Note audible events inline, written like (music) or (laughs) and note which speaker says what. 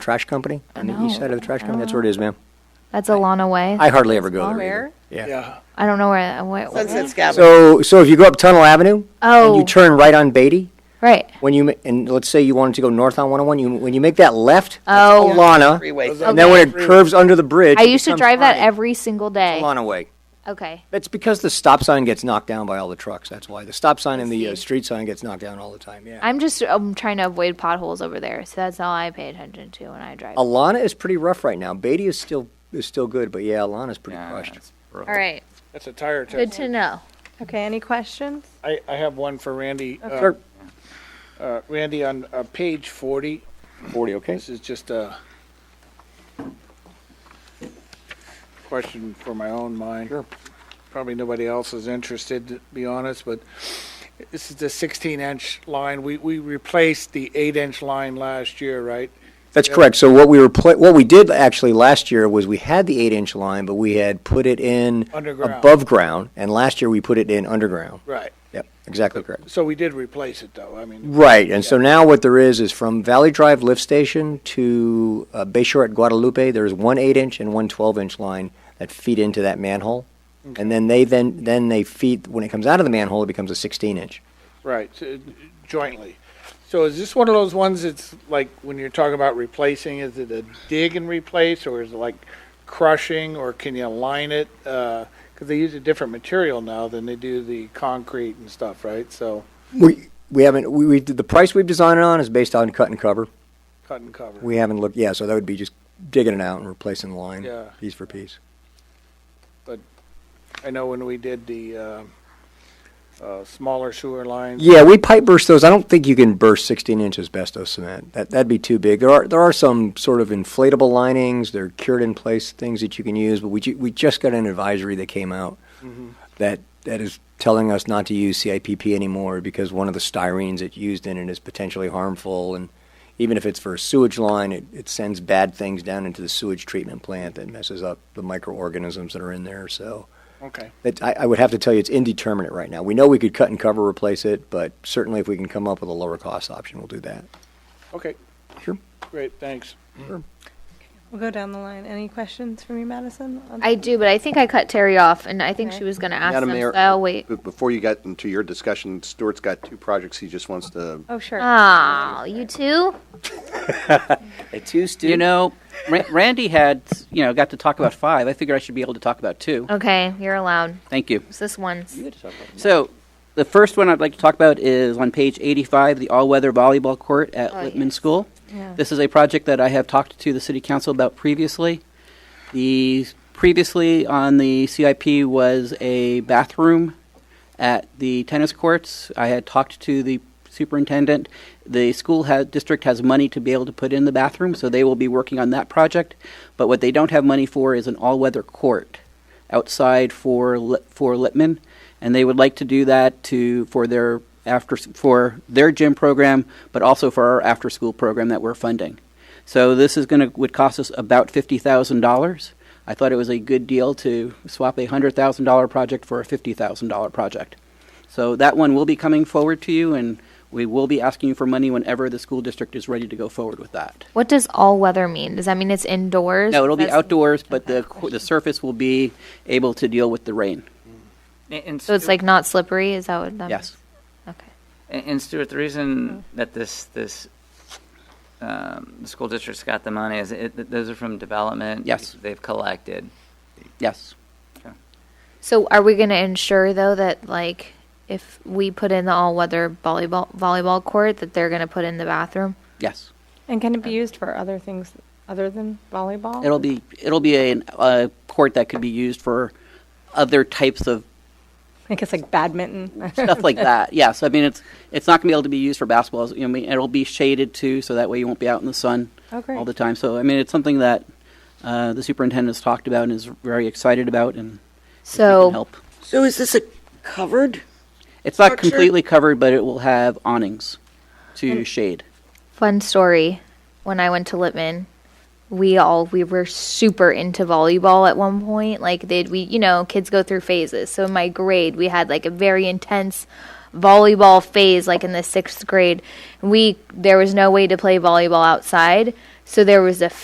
Speaker 1: trash company on the east
Speaker 2: No,
Speaker 1: side of the trash company. That's
Speaker 2: no.
Speaker 1: where it is, ma'am.
Speaker 2: That's Alana Way.
Speaker 1: I hardly ever go there.
Speaker 3: Where?
Speaker 1: either. Yeah.
Speaker 4: Yeah.
Speaker 2: I don't know where. where,
Speaker 3: Sunset Scabbard.
Speaker 1: So, so if you go up Tunnel Avenue and
Speaker 2: Oh,
Speaker 1: you turn right on Beatty,
Speaker 2: right.
Speaker 1: when you ma- and let's say you wanted to go north on 101, you when you make that left,
Speaker 2: Oh.
Speaker 1: that's Alana,
Speaker 3: Freeway.
Speaker 4: Those are-
Speaker 1: and then when it
Speaker 4: Okay.
Speaker 1: curves under the bridge,
Speaker 2: I
Speaker 1: it
Speaker 2: used to
Speaker 1: becomes
Speaker 2: drive that
Speaker 1: Arnold.
Speaker 2: every single day.
Speaker 1: Alana Way.
Speaker 2: Okay.
Speaker 1: That's because the stop sign gets knocked down by all the trucks. That's why the stop sign and the uh,
Speaker 2: see.
Speaker 1: street sign gets knocked down all the time. Yeah.
Speaker 2: I'm just um trying to avoid potholes over there, so that's all I pay attention to when I drive. All
Speaker 1: Alana is pretty rough right now. Beatty is still is still good, but yeah, Alana's pretty crushed.
Speaker 2: right.
Speaker 4: That's a tire test.
Speaker 2: Good to know.
Speaker 5: Okay, any questions?
Speaker 4: I, I have one for Randy. Uh,
Speaker 1: Sure.
Speaker 4: uh, Randy, on uh, page 40,
Speaker 1: 40, okay.
Speaker 4: this is just a question for my own mind.
Speaker 1: Sure.
Speaker 4: Probably nobody else is interested, to be honest, but this is the 16-inch line. We, we replaced the 8-inch line last year, right?
Speaker 1: That's correct. So what we were pla- what we did actually last year was we had the 8-inch line, but we had put it in
Speaker 4: Underground.
Speaker 1: above ground, and last year we put it in underground.
Speaker 4: Right.
Speaker 1: Yep, exactly correct.
Speaker 4: So we did replace it, though. I mean,
Speaker 1: Right, and so now what there is is from Valley Drive Lift Station to uh, Bayshore at Guadalupe, there's one eight-inch and one 12-inch line that feed into that manhole, and then they then then they feed when it comes out of the manhole, it becomes a 16-inch.
Speaker 4: right, so, uh, jointly. So is this one of those ones that's like, when you're talking about replacing, is it a dig and replace, or is it like crushing, or can you align it? Because they use a different material now than they do the concrete and stuff, right? So
Speaker 1: We we haven't we, we the price we've designed it on is based on cut and cover.
Speaker 4: cut and cover.
Speaker 1: We haven't looked, yeah, so that would be just digging it out and replacing the line,
Speaker 4: Yeah.
Speaker 1: piece for piece.
Speaker 4: I know when we did the uh, uh, smaller sewer lines.
Speaker 1: Yeah, we pipe burst those. I don't think you can burst 16 inch asbestos cement. That, that'd be too big. There are, there are some sort of inflatable linings, they're cured in place, things that you can use, but we, ju- we just got an advisory that came out that, that is telling us not to use CIPP anymore because one of the styrenes it used in it is potentially harmful, and even if it's for a sewage line, it, it sends bad things down into the sewage treatment plant that messes up the microorganisms that are in there, so.
Speaker 4: Okay,
Speaker 1: That, I, I would have to tell you, it's indeterminate right now. We know we could cut and cover replace it, but certainly if we can come up with a lower cost option, we'll do that.
Speaker 4: okay.
Speaker 1: Sure.
Speaker 4: Great, thanks.
Speaker 5: We'll go down the line. Any questions for me, Madison? on-
Speaker 2: I do, but I think I cut Terry off, and I think she was going to ask
Speaker 6: Madam
Speaker 2: them,
Speaker 6: Mayor,
Speaker 2: so I'll wait.
Speaker 6: b- Before you get into your discussion, Stuart's got two projects he just wants to,
Speaker 5: Oh, sure.
Speaker 2: Oh, you too?
Speaker 7: You know, Ra- Randy had, you know, got to talk about five. I figured I should be able to talk about two.
Speaker 2: Okay, you're allowed.
Speaker 7: Thank you.
Speaker 2: It's this one's.
Speaker 7: So, the first one I'd like to talk about is on page 85, the all-weather volleyball court at
Speaker 2: Oh,
Speaker 7: Littman
Speaker 2: yes.
Speaker 7: School.
Speaker 5: Yeah.
Speaker 7: This is a project that I have talked to the city council about previously. The previously on the CIP was a bathroom at the tennis courts. I had talked to the superintendent. The school ha- district has money to be able to put in the bathroom, so they will be working on that project. But what they don't have money for is an all-weather court outside for Lit- for Litman, and they would like to do that to for their after for their gym program, but also for our after-school program that we're funding. So this is going to would cost us about fifty thousand dollars. I thought it was a good deal to swap a hundred thousand dollar project for a fifty thousand dollar project. So that one will be coming forward to you, and we will be asking you for money whenever the school district is ready to go forward with that.
Speaker 2: What does all weather mean? Does that mean it's indoors?
Speaker 7: No, it'll be
Speaker 2: That's-
Speaker 7: outdoors, but the qu- the surface will be able to deal with the rain.
Speaker 8: And- And
Speaker 2: So it's
Speaker 8: Stuart-
Speaker 2: like not slippery? Is that what that
Speaker 7: Yes.
Speaker 2: means? Okay.
Speaker 8: and and Stuart, the reason
Speaker 2: Mm-hmm.
Speaker 8: that this this um, the school district's got the money is it, th- those are from development.
Speaker 7: Yes.
Speaker 8: they've collected.
Speaker 7: Yes.
Speaker 2: So are we going to ensure though that like if we put in the all-weather volleyball volleyball court that they're going to put in the bathroom?
Speaker 7: Yes.
Speaker 5: And can it be used for other things other than volleyball?
Speaker 7: It'll be it'll be a, a court that could be used for other types of
Speaker 5: I guess like badminton. (laughs)
Speaker 7: stuff like that. Yes, I mean it's it's not going to be able to be used for basketball. You know, I mean, it'll be shaded too, so that way you won't be out in the sun
Speaker 5: Oh, great.
Speaker 7: all the time. So I mean, it's something that uh, the superintendent's talked about and is very excited about, and we can
Speaker 2: So
Speaker 7: help.
Speaker 9: So is this a covered?
Speaker 7: It's not
Speaker 9: Structure?
Speaker 7: completely covered, but it will have awnings to shade.
Speaker 2: fun story when I went to Lippman we all we were super into volleyball at one point like did we you know kids go through phases so in my grade we had like a very intense volleyball phase like in the sixth grade we there was no way to play volleyball outside So there was a